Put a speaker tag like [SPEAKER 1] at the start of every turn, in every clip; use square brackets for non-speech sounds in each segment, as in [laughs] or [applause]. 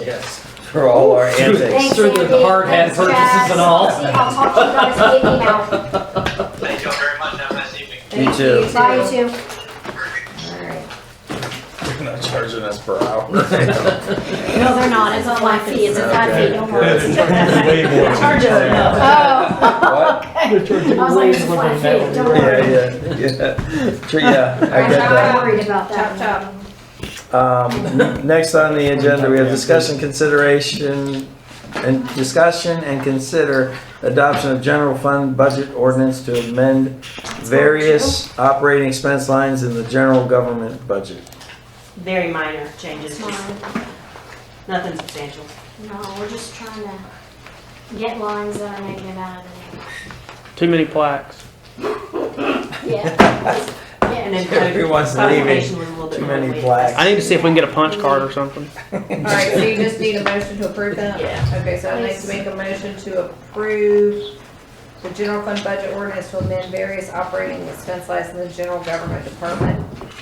[SPEAKER 1] Yes, for all our antics.
[SPEAKER 2] Thanks,
[SPEAKER 3] Through the
[SPEAKER 2] Andy.
[SPEAKER 3] hard hat
[SPEAKER 2] Thanks,
[SPEAKER 3] purchases
[SPEAKER 2] guys.
[SPEAKER 3] and all.
[SPEAKER 2] See, I'll talk to you guys in email.
[SPEAKER 3] [laughs]
[SPEAKER 4] Thank you all very much. Have a nice evening.
[SPEAKER 1] You too.
[SPEAKER 2] Bye, you too. Alright.
[SPEAKER 5] They're not charging us per hour.
[SPEAKER 2] No, they're not, it's a flat fee, it's a flat fee, don't worry.
[SPEAKER 5] That's way more than-
[SPEAKER 3] Charge it
[SPEAKER 2] Oh,
[SPEAKER 3] up.
[SPEAKER 2] I
[SPEAKER 1] What?
[SPEAKER 2] Oh. was like, it's a flat fee, don't
[SPEAKER 1] Yeah,
[SPEAKER 2] worry.
[SPEAKER 1] yeah, yeah. Sure, Yeah, I get
[SPEAKER 2] I'm
[SPEAKER 1] that.
[SPEAKER 2] not worried about
[SPEAKER 6] Chop
[SPEAKER 2] that.
[SPEAKER 6] chop.
[SPEAKER 1] Um, n- next on the agenda, we have discussion, consideration, and discussion and consider adoption of general fund budget ordinance to amend various operating expense lines in the general government
[SPEAKER 7] [laughs]
[SPEAKER 1] budget.
[SPEAKER 6] Very minor changes,
[SPEAKER 2] It's
[SPEAKER 6] just
[SPEAKER 2] mine.
[SPEAKER 6] nothing substantial.
[SPEAKER 2] No, we're just trying to get lines that are negative out of
[SPEAKER 7] Too many plaques.
[SPEAKER 2] it. Yeah.
[SPEAKER 6] [laughs] And then
[SPEAKER 2] Yeah.
[SPEAKER 1] Everyone's
[SPEAKER 6] clarification was a little bit
[SPEAKER 1] Too
[SPEAKER 6] more
[SPEAKER 1] many
[SPEAKER 6] weighted.
[SPEAKER 1] plaques.
[SPEAKER 7] I need to see if we can get a punch card or something.
[SPEAKER 6] Alright,
[SPEAKER 1] Alright,
[SPEAKER 6] so
[SPEAKER 1] so
[SPEAKER 6] you
[SPEAKER 8] Just need a motion to approve that?
[SPEAKER 6] Yeah.
[SPEAKER 8] Okay, so I'd like to make a motion to approve the general fund budget ordinance to amend various operating expense lines in the general government department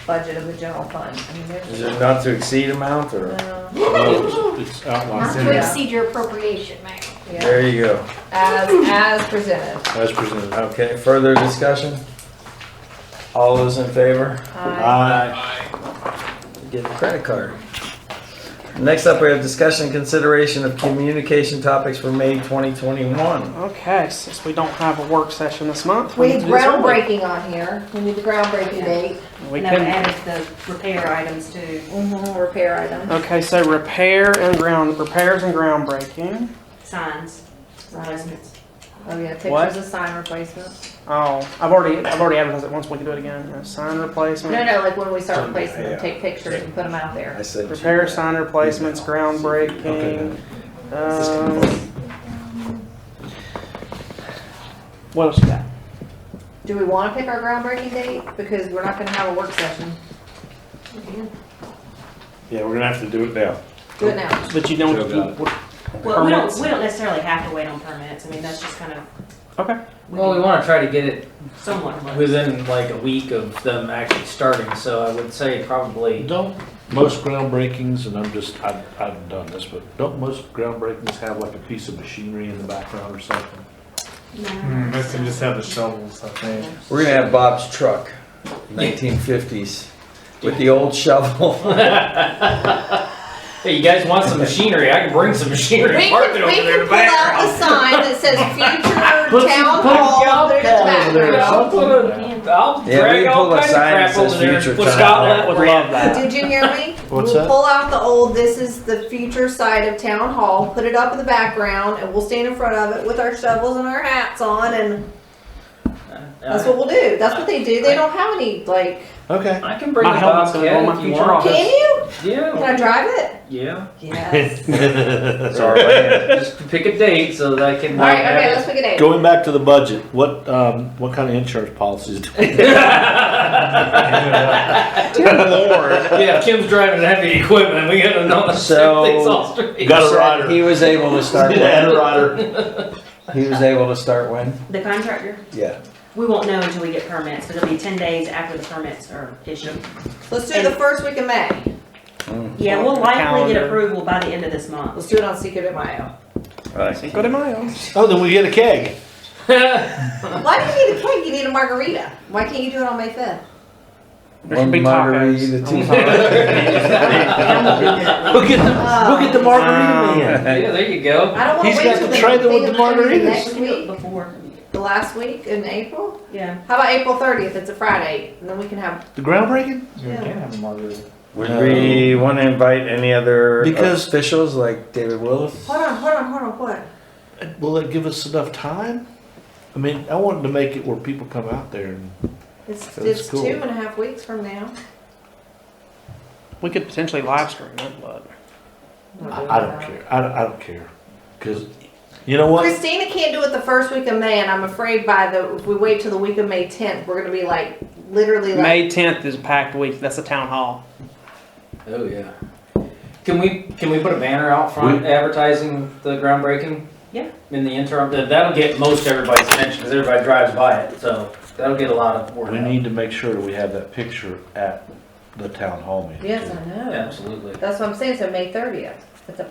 [SPEAKER 8] budget of the general fund. I mean,
[SPEAKER 1] Is
[SPEAKER 8] there's, uh,
[SPEAKER 1] it not to exceed amount or?
[SPEAKER 8] no,
[SPEAKER 5] It's
[SPEAKER 2] Not
[SPEAKER 5] outlined
[SPEAKER 2] to exceed your appropriation, Mayor.
[SPEAKER 8] yeah,
[SPEAKER 1] There you go.
[SPEAKER 8] as, as presented.
[SPEAKER 5] as presented.
[SPEAKER 1] Okay, further discussion? All those in favor?
[SPEAKER 8] Aye.
[SPEAKER 1] Get a credit card. Next up, we have discussion and consideration of communication topics for May 2021.
[SPEAKER 7] Okay, since we don't have a work session this month,
[SPEAKER 8] We
[SPEAKER 7] need
[SPEAKER 8] need
[SPEAKER 7] to do something.
[SPEAKER 8] groundbreaking on here. We need the groundbreaking date,
[SPEAKER 7] We
[SPEAKER 6] And then we
[SPEAKER 7] couldn't.
[SPEAKER 6] added the repair items too.
[SPEAKER 8] Mhm, repair item.
[SPEAKER 7] Okay, so repair and ground repairs and groundbreaking.
[SPEAKER 6] Signs, replacements.
[SPEAKER 8] Oh, yeah,
[SPEAKER 7] What?
[SPEAKER 8] pictures of sign replacement.
[SPEAKER 7] Oh, I've already I've already advertised it once. We can do it again. Uh, sign replacement.
[SPEAKER 8] No, no, like when we start replacing
[SPEAKER 5] Yeah.
[SPEAKER 8] them, take pictures and put them out there.
[SPEAKER 1] I said.
[SPEAKER 7] Repair sign replacements, groundbreaking.
[SPEAKER 1] Okay.
[SPEAKER 7] Um, what else you got?
[SPEAKER 8] Do we want to pick our groundbreaking date? Because we're not gonna have a work session.
[SPEAKER 5] Yeah, we're gonna have to do it now.
[SPEAKER 8] Do it now.
[SPEAKER 7] But you don't.
[SPEAKER 5] Joe
[SPEAKER 7] You,
[SPEAKER 6] Well, we don't,
[SPEAKER 7] Permits.
[SPEAKER 6] we don't necessarily have to wait on permits, I mean, that's just kind of.
[SPEAKER 7] Okay.
[SPEAKER 6] We
[SPEAKER 3] Well, we
[SPEAKER 6] can
[SPEAKER 3] wanna try to get it
[SPEAKER 6] somewhat look.
[SPEAKER 3] within like a week of them actually starting, so I would say probably,
[SPEAKER 5] Don't most groundbreakings, and I'm just, I've, I've done this, but don't most groundbreakings have like a piece of machinery in the background or something?
[SPEAKER 7] Mm,
[SPEAKER 5] Mm,
[SPEAKER 2] No.
[SPEAKER 5] have the shovels, I think.
[SPEAKER 1] We're gonna have Bob's truck, 1950s, with the old
[SPEAKER 5] [laughs]
[SPEAKER 1] shovel.
[SPEAKER 3] hey, you guys want some machinery, I can bring some machinery,
[SPEAKER 8] We
[SPEAKER 3] and park it
[SPEAKER 8] can,
[SPEAKER 3] over
[SPEAKER 8] we
[SPEAKER 3] there in
[SPEAKER 8] can
[SPEAKER 3] the
[SPEAKER 8] pull out
[SPEAKER 3] background.
[SPEAKER 8] the sign
[SPEAKER 3] [laughs]
[SPEAKER 8] that says
[SPEAKER 3] Put
[SPEAKER 8] future
[SPEAKER 3] some-
[SPEAKER 8] town
[SPEAKER 3] put a
[SPEAKER 8] hall,
[SPEAKER 3] job
[SPEAKER 8] there's the
[SPEAKER 3] down over there.
[SPEAKER 8] background.
[SPEAKER 3] I'll put a, I'll
[SPEAKER 1] Yeah, we
[SPEAKER 3] drag
[SPEAKER 1] can
[SPEAKER 3] all
[SPEAKER 1] pull a
[SPEAKER 3] kinds of
[SPEAKER 1] sign that
[SPEAKER 3] crap
[SPEAKER 1] says
[SPEAKER 3] over there.
[SPEAKER 1] future
[SPEAKER 3] Well,
[SPEAKER 1] town
[SPEAKER 3] Scotland
[SPEAKER 1] hall.
[SPEAKER 3] would love that.
[SPEAKER 8] Did you hear me?
[SPEAKER 5] What's
[SPEAKER 8] We'll
[SPEAKER 5] that?
[SPEAKER 8] pull out the old, this is the future side of town hall, put it up in the background, and we'll stand in front of it with our shovels and our hats on, and that's what we'll do. That's what they do. They don't have any, like,
[SPEAKER 5] Okay.
[SPEAKER 3] Uh,
[SPEAKER 5] [laughs]
[SPEAKER 3] I can bring
[SPEAKER 7] My
[SPEAKER 3] a
[SPEAKER 7] helmet's gonna blow
[SPEAKER 3] bobcat
[SPEAKER 7] my
[SPEAKER 3] if you want.
[SPEAKER 7] future off.
[SPEAKER 8] can you? Can
[SPEAKER 3] Yeah,
[SPEAKER 8] I drive it?
[SPEAKER 3] yeah, [laughs]
[SPEAKER 8] Yes.
[SPEAKER 1] That's our land.
[SPEAKER 3] just pick a date so that I can.
[SPEAKER 8] All right, okay, let's pick a date.
[SPEAKER 5] Going back to the budget, what, um, what kind of insurance policies? do we have? Lord.
[SPEAKER 3] Yeah, Kim's driving heavy equipment, we gotta know the
[SPEAKER 1] So-
[SPEAKER 3] things all [laughs] straight.
[SPEAKER 5] [laughs] Got a
[SPEAKER 1] Said He
[SPEAKER 5] [laughs] rider.
[SPEAKER 1] was able to start
[SPEAKER 5] Had
[SPEAKER 1] when?
[SPEAKER 5] a rider.
[SPEAKER 1] He was able to start when?
[SPEAKER 6] The contractor,
[SPEAKER 1] Yeah.
[SPEAKER 6] we won't know until we get permits, but it'll be ten days after the permits are issued.
[SPEAKER 8] Let's do it the first week of May.
[SPEAKER 6] Yeah, we'll likely get
[SPEAKER 7] Calendar.
[SPEAKER 6] approval by the end of this month.
[SPEAKER 8] Let's do it on Cinco de Mayo.
[SPEAKER 1] Right.
[SPEAKER 7] Cinco de Mayo.
[SPEAKER 5] Oh, then we get a keg.
[SPEAKER 8] Why do you need a cake? You need a margarita. Why can't you do it on May 5th?
[SPEAKER 7] There should be
[SPEAKER 1] One margarita, two
[SPEAKER 5] We'll get the, we'll
[SPEAKER 1] Um,
[SPEAKER 5] get the margarita man.
[SPEAKER 1] Wow.
[SPEAKER 3] Yeah, there you go.
[SPEAKER 8] I don't want
[SPEAKER 5] He's
[SPEAKER 8] to
[SPEAKER 5] got
[SPEAKER 8] wait till
[SPEAKER 5] to try
[SPEAKER 8] the
[SPEAKER 5] them with
[SPEAKER 8] thing of
[SPEAKER 5] the
[SPEAKER 8] the
[SPEAKER 5] margaritas.
[SPEAKER 8] next
[SPEAKER 6] We can do it
[SPEAKER 8] week,
[SPEAKER 6] Before,
[SPEAKER 8] the last week in April.
[SPEAKER 6] yeah.
[SPEAKER 8] How about April 30th? It's a Friday, and then we can have.
[SPEAKER 5] The groundbreaking?
[SPEAKER 8] Yeah.
[SPEAKER 1] [laughs] Would we want to invite any other
[SPEAKER 5] Um, Because-
[SPEAKER 1] officials like David Willis?
[SPEAKER 8] Hold on, hold on, hold on. What?
[SPEAKER 5] Will that give us enough time? I mean, I wanted to make it where people come out there and
[SPEAKER 8] It's,
[SPEAKER 5] That's
[SPEAKER 8] it's
[SPEAKER 5] cool.
[SPEAKER 8] two and a half weeks from now.
[SPEAKER 7] [laughs] We could potentially live stream it, but
[SPEAKER 5] I, I don't care. I, don't- I don't care. Because, you know what?
[SPEAKER 8] Christina can't do it the first week of May, and I'm afraid by the if we wait till the week of May 10th, we're gonna be like literally like.
[SPEAKER 7] May 10th is a packed week. That's a town hall.
[SPEAKER 3] Oh, yeah. Can we, can we put a banner out front advertising the groundbreaking?
[SPEAKER 6] Yeah.
[SPEAKER 3] In the interim, that- that'll get most everybody's attention, because everybody drives by it, so that'll get a lot of word
[SPEAKER 5] We
[SPEAKER 3] out.
[SPEAKER 5] need to make sure that we have that picture at the town hall meeting.
[SPEAKER 8] Yes,
[SPEAKER 5] too.
[SPEAKER 8] I know.
[SPEAKER 3] Absolutely.
[SPEAKER 8] That's what I'm saying. So May 30th.